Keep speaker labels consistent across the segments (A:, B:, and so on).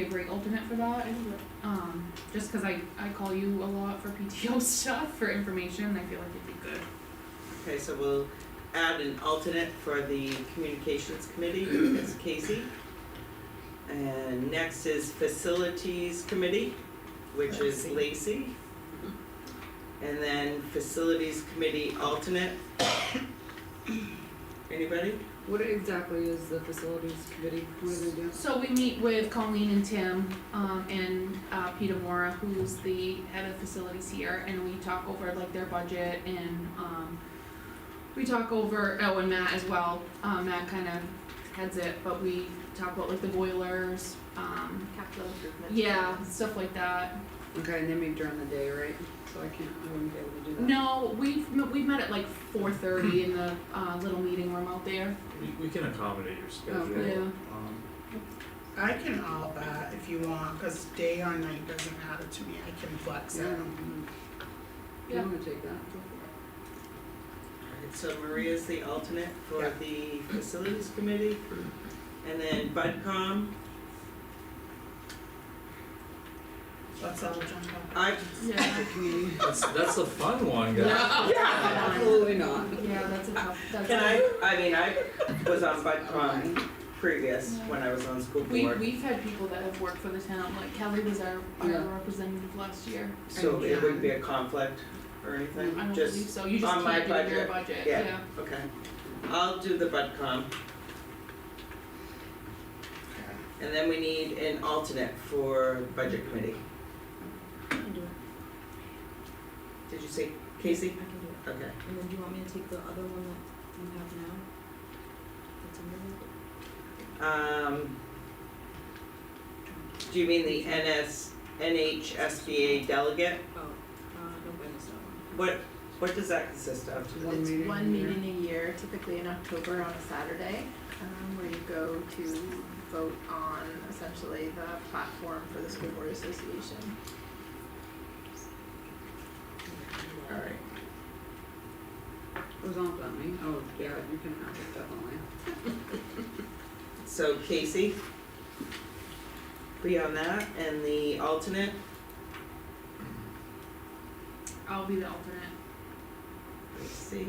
A: be a great alternate for that, um, just cause I, I call you a lot for PTO stuff, for information, and I feel like it'd be good.
B: Okay, so we'll add an alternate for the communications committee, Ms. Casey. And next is facilities committee, which is
A: Lacey.
B: Lacey. And then facilities committee alternate. Anybody?
C: What exactly is the facilities committee, what do they do?
A: So we meet with Colleen and Tim, um, and, uh, Peter Mora, who's the head of facilities here, and we talk over like their budget and, um, we talk over, oh, and Matt as well, um, Matt kinda heads it, but we talk about like the boilers, um,
D: Capital improvement.
A: yeah, stuff like that.
C: Okay, and they meet during the day, right? So I can't, I wouldn't be able to do that.
A: No, we've, m- we've met at like four thirty in the, uh, little meeting room out there,
E: We, we can accommodate your schedule.
C: Okay.
A: yeah.
E: Um,
F: I can all that if you want, cause day or night doesn't matter to me, I can flex
C: Yeah, I
F: it.
C: don't, you
A: Yeah.
C: wanna take that?
B: Alright, so Maria's the alternate for
F: Yeah.
B: the facilities committee. And then Budcom,
F: Let's all jump on.
B: I,
A: Yeah,
C: Community?
E: That's, that's a fun one, guys.
C: Absolutely not.
A: yeah, that's a tough, that's
B: can
A: a-
B: I, I mean, I was on Budcom previous,
A: Yeah.
B: when I was on school board.
A: We, we've had people that have worked for the town, like Kelly was our, our
C: Yeah.
A: representative last year.
B: So it wouldn't be
A: And,
B: a conflict or anything,
A: um, I don't believe
B: just,
A: so, you just
B: on my
A: can't do your
B: budget,
A: budget,
B: yeah.
A: yeah.
B: okay. I'll do the Budcom. And then we need an alternate for budget committee.
D: I can do it,
B: Did you say Casey?
D: I can do it.
B: Okay.
D: And then do you want me to take the other one that you have now? That's under
B: Um,
D: it?
B: do you mean the NS, NHSBA delegate?
D: Oh, uh, no, wait, it's not one.
B: What, what does that consist of?
C: One meeting.
G: It's one
C: a year.
G: meeting a year, typically in October on a Saturday, um, where you go to vote on essentially the platform for the school board association.
B: Alright,
C: It was on about me, oh, yeah, you can have it definitely.
B: so Casey? Be on that, and the alternate?
A: I'll be the alternate.
B: Let's see.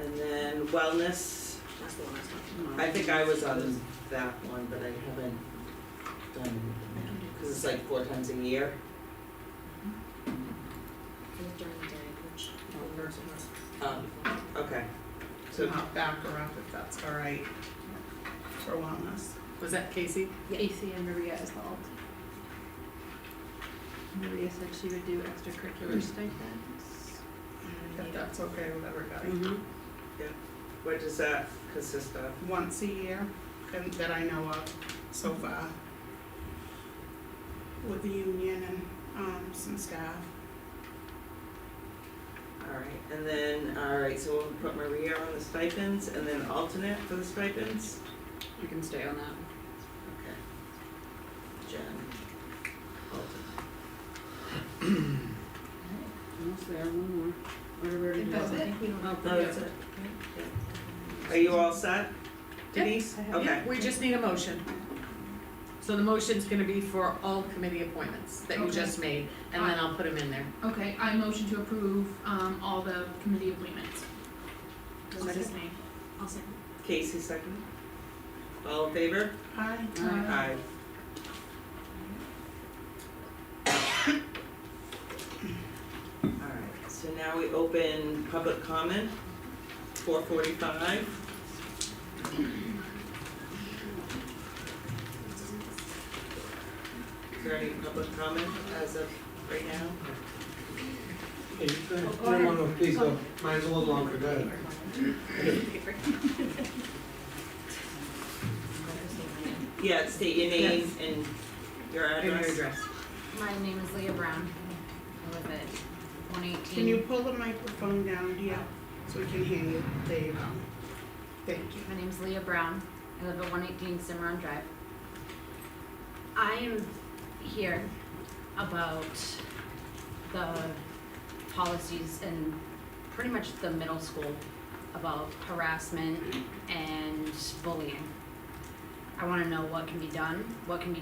B: And then wellness,
D: That's the one I was talking
C: No.
B: I think I was on that one, but I haven't done it, cause it's like four times a year.
D: about. It was during the day, which.
C: Oh, there's
B: Um, okay,
F: So
B: so,
F: I'll back her up if that's all right for wellness.
C: Was that Casey?
G: AC and Maria is the alt. Maria said she would do
B: Hmm.
G: extracurricular stipends.
F: If that's okay with everybody.
C: Mm-hmm.
B: what does that consist of?
F: Once a year, and that I know of so far. With the union and, um, some staff.
B: Alright, and then, alright, so we'll put Maria on the stipends and then alternate for the stipends?
C: You can stay on that.
B: Okay. Jen, alternate.
C: Almost there, one more. What have we
G: I
C: already
G: think
C: done?
G: that's it.
D: think we don't.
C: Oh,
B: No, that's it. Are you all set? Denise?
G: I have-
B: Okay,
H: We just need a motion. So the motion's gonna be for all committee appointments that you
A: Okay.
H: just made, and then I'll put them in there.
A: Okay, I motion to approve, um, all the committee appointments. What's his name?
D: I'll second.
B: Casey second. All in favor?
F: Hi.
C: Aye.
B: Aye. Alright, so now we open public comment, four forty-five. Is there any public comment as of right now?
I: Hey, go ahead. No, no, no, please go. Mine's a little longer, go ahead.
B: Yeah, state your name and your
H: In your
B: address.
H: address.
D: My name is Leah Brown, I live at one eighteen.
F: Can you pull the microphone down, yeah, so we can hear you? There you go. Thank you.
D: My name's Leah Brown. I live at one eighteen Cimarron Drive. I am here about the policies in pretty much the middle school about harassment and bullying. I wanna know what can be done, what can be